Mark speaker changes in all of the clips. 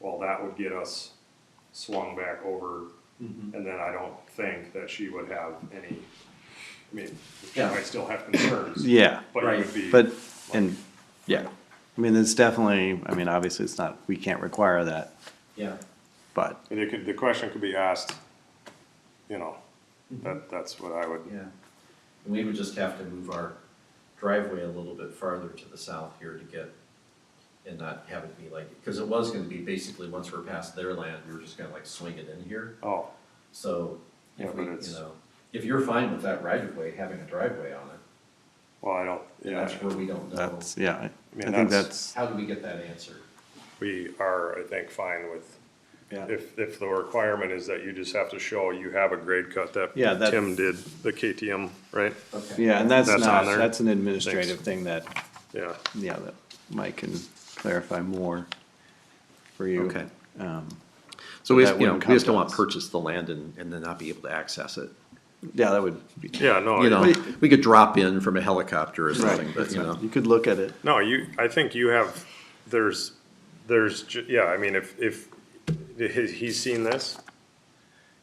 Speaker 1: well, that would get us swung back over,
Speaker 2: Mm-hmm.
Speaker 1: and then I don't think that she would have any, I mean, she
Speaker 2: Yeah.
Speaker 1: might still have concerns.
Speaker 3: Yeah,
Speaker 1: But it would be.
Speaker 3: but, and, yeah, I mean, it's definitely, I mean, obviously, it's not, we can't require that,
Speaker 2: Yeah,
Speaker 3: but,
Speaker 1: And it could, the question could be asked, you know, that, that's what I would,
Speaker 2: Mm-hmm. yeah. And we would just have to move our driveway a little bit farther to the south here to get, and not have it be like, because it was gonna be basically, once we're past their land, we were just gonna like swing it in here.
Speaker 1: oh,
Speaker 2: So,
Speaker 1: Yeah,
Speaker 2: if
Speaker 1: but
Speaker 2: we, you
Speaker 1: it's-
Speaker 2: know, if you're fine with that right of way, having a driveway on it,
Speaker 1: well, I don't,
Speaker 2: then
Speaker 1: yeah,
Speaker 2: that's where we don't know.
Speaker 3: that's, yeah, I-
Speaker 1: mean,
Speaker 3: I think
Speaker 1: that's-
Speaker 3: that's,
Speaker 2: How do we get that answered?
Speaker 1: we are, I think, fine with,
Speaker 3: yeah.
Speaker 1: if, if the requirement is that you just have to show you have a grade cut that
Speaker 3: Yeah, that-
Speaker 1: Tim did, the KTM, right?
Speaker 2: Okay.
Speaker 3: Yeah, and that's
Speaker 1: That's
Speaker 3: not,
Speaker 1: on there.
Speaker 3: that's an administrative thing that,
Speaker 1: Yeah,
Speaker 3: yeah, that Mike can clarify more for you.
Speaker 4: Okay.
Speaker 3: Um,
Speaker 4: So we,
Speaker 3: But
Speaker 4: just-
Speaker 3: that
Speaker 4: you know,
Speaker 3: wouldn't
Speaker 4: we just don't
Speaker 3: come to
Speaker 4: want to
Speaker 3: us.
Speaker 4: purchase the land and, and then not be able to access it.
Speaker 3: Yeah, that would be.
Speaker 1: Oh, yeah, no.
Speaker 4: You
Speaker 1: I-
Speaker 4: know, we could drop in from a helicopter or
Speaker 3: Right,
Speaker 4: something, but
Speaker 3: that's
Speaker 4: you
Speaker 3: not-
Speaker 4: know,
Speaker 3: You could look at it,
Speaker 1: No, you, I think you have, there's, there's, ju- yeah, I mean, if, if, he- he's seen this,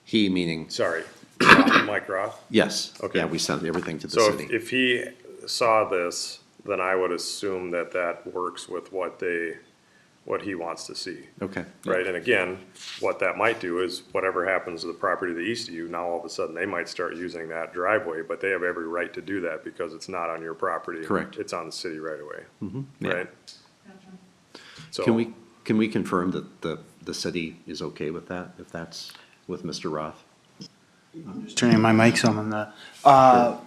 Speaker 4: he meaning,
Speaker 1: sorry, Mike Roth.
Speaker 4: yes.
Speaker 1: Okay.
Speaker 4: Yeah, we sent everything to the
Speaker 1: So if,
Speaker 4: city.
Speaker 1: if he saw this, then I would assume that that works with what they, what he wants to see.
Speaker 4: Okay.
Speaker 1: Right, and again, what that might do is whatever happens to the property to the east of you, now all of a sudden they might start using that driveway, but they have every right to do that because it's not on your property.
Speaker 4: Correct. Mm-hmm.
Speaker 1: It's on the city right away.
Speaker 4: yeah.
Speaker 1: Right? So-
Speaker 4: Can we, can we confirm that the, the city is okay with that, if that's with Mr. Roth?
Speaker 5: Just turning my mic some on the, uh,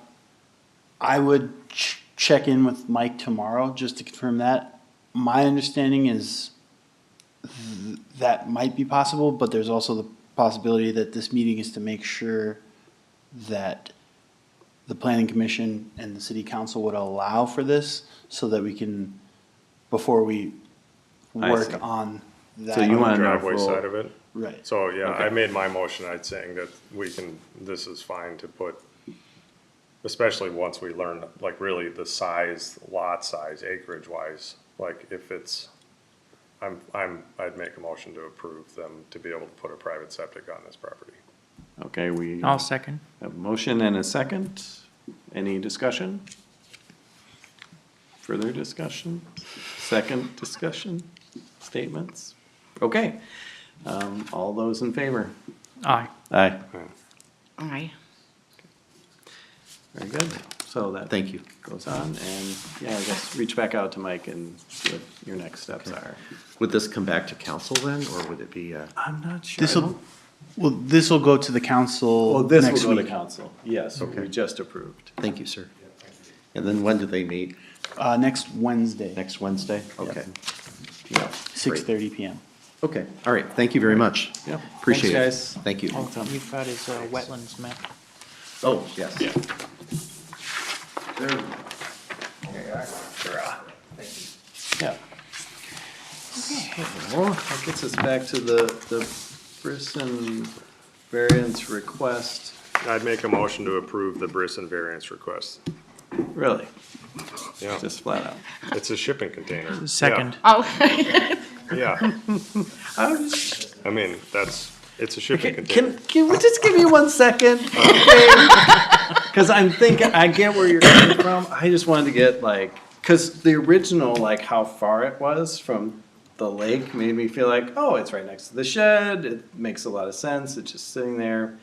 Speaker 5: I would ch- check in with Mike tomorrow just to confirm that. My understanding is th- that might be possible, but there's also the possibility that this meeting is to make sure that the planning commission and the city council would allow for this so that we can, before we
Speaker 3: I see.
Speaker 5: work on that.
Speaker 3: you
Speaker 1: On the
Speaker 3: wanna know if
Speaker 1: driveway
Speaker 3: we'll-
Speaker 1: side of it?
Speaker 5: Right.
Speaker 1: So, yeah, I
Speaker 3: Okay.
Speaker 1: made my motion, I'd saying that we can, this is fine to put, especially once we learn, like, really the size, lot size, acreage wise, like, if it's, I'm, I'm, I'd make a motion to approve them to be able to put a private septic on this property.
Speaker 3: okay, we.
Speaker 6: I'll second.
Speaker 3: A motion and a second. Any discussion? Further discussion? Second discussion? Statements? Okay. Um, all those in favor?
Speaker 6: Aye.
Speaker 3: Aye.
Speaker 6: Aye.
Speaker 3: Very good. So that.
Speaker 4: Thank you.
Speaker 3: Goes on and, yeah, I guess reach back out to Mike and see what your next steps are.
Speaker 4: Would this come back to council then, or would it be, uh,
Speaker 3: I'm not sure.
Speaker 5: This will, well, this will go to the council
Speaker 3: Well, this
Speaker 5: next
Speaker 3: will go to
Speaker 5: week.
Speaker 3: council. Yes, we just approved.
Speaker 4: thank you, sir. And then when do they meet?
Speaker 5: Uh, next Wednesday.
Speaker 4: Next Wednesday? Okay. Yeah.
Speaker 5: Six
Speaker 4: great.
Speaker 5: thirty PM.
Speaker 4: Okay, all right, thank you very much.
Speaker 3: Yeah.
Speaker 4: Appreciate it.
Speaker 3: Thanks, guys.
Speaker 4: Thank you.
Speaker 6: All you've got is uh, wetlands map.
Speaker 4: Oh, yes.
Speaker 3: Yeah. So, that gets us back to the, the Brisson variance request,
Speaker 1: I'd make a motion to approve the Brisson variance request.
Speaker 3: really,
Speaker 1: Yeah,
Speaker 3: just flat out.
Speaker 1: it's a shipping container. Yeah,
Speaker 6: Second.
Speaker 7: Oh.
Speaker 1: Yeah, I mean, that's, it's a shipping container.
Speaker 3: Can, can we just give me one second? Because I'm thinking, I get where you're coming from, I just wanted to get like, because the original, like how far it was from the lake made me feel like, oh, it's right next to the shed, it makes a lot of sense, it's just sitting there.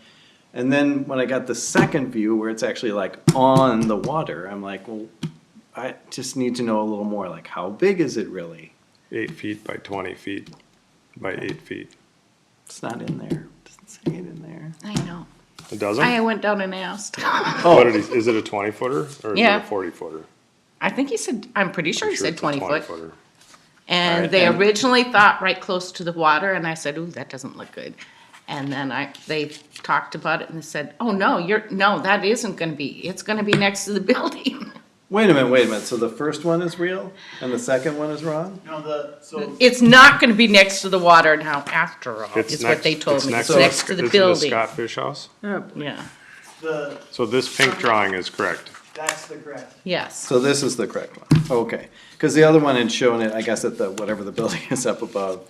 Speaker 3: And then when I got the second view where it's actually like on the water, I'm like, well, I just need to know a little more, like how big is it really?
Speaker 1: Eight feet by twenty feet by eight feet.
Speaker 3: It's not in there, doesn't say it in there.
Speaker 7: I know.
Speaker 1: It doesn't?
Speaker 7: I went down and asked.
Speaker 1: What did he, is it a twenty footer or is it
Speaker 7: Yeah.
Speaker 1: a forty footer?
Speaker 7: I think he said, I'm pretty sure he said
Speaker 1: it's a
Speaker 7: twenty foot.
Speaker 1: footer.
Speaker 7: And
Speaker 3: Alright,
Speaker 7: they
Speaker 3: and-
Speaker 7: originally thought right close to the water and I said, ooh, that doesn't look good. And then I, they talked about it and they said, oh, no, you're, no, that isn't gonna be, it's gonna be next to the building.
Speaker 3: Wait a minute, wait a minute. So the first one is real and the second one is wrong?
Speaker 5: No, the, so.
Speaker 7: It's not gonna be next to the water now after all,
Speaker 1: It's
Speaker 7: is what they
Speaker 1: next-
Speaker 7: told me. It's
Speaker 1: the
Speaker 7: next
Speaker 1: Sc-
Speaker 7: to the
Speaker 1: isn't it
Speaker 7: building.
Speaker 1: Scott Fish House?
Speaker 7: Yeah,
Speaker 5: The,
Speaker 1: So this pink drawing is correct.
Speaker 5: that's the graph.
Speaker 7: yes.
Speaker 3: So this is the correct one. Okay. Because the other one had shown it, I guess, at the whatever the building is up above.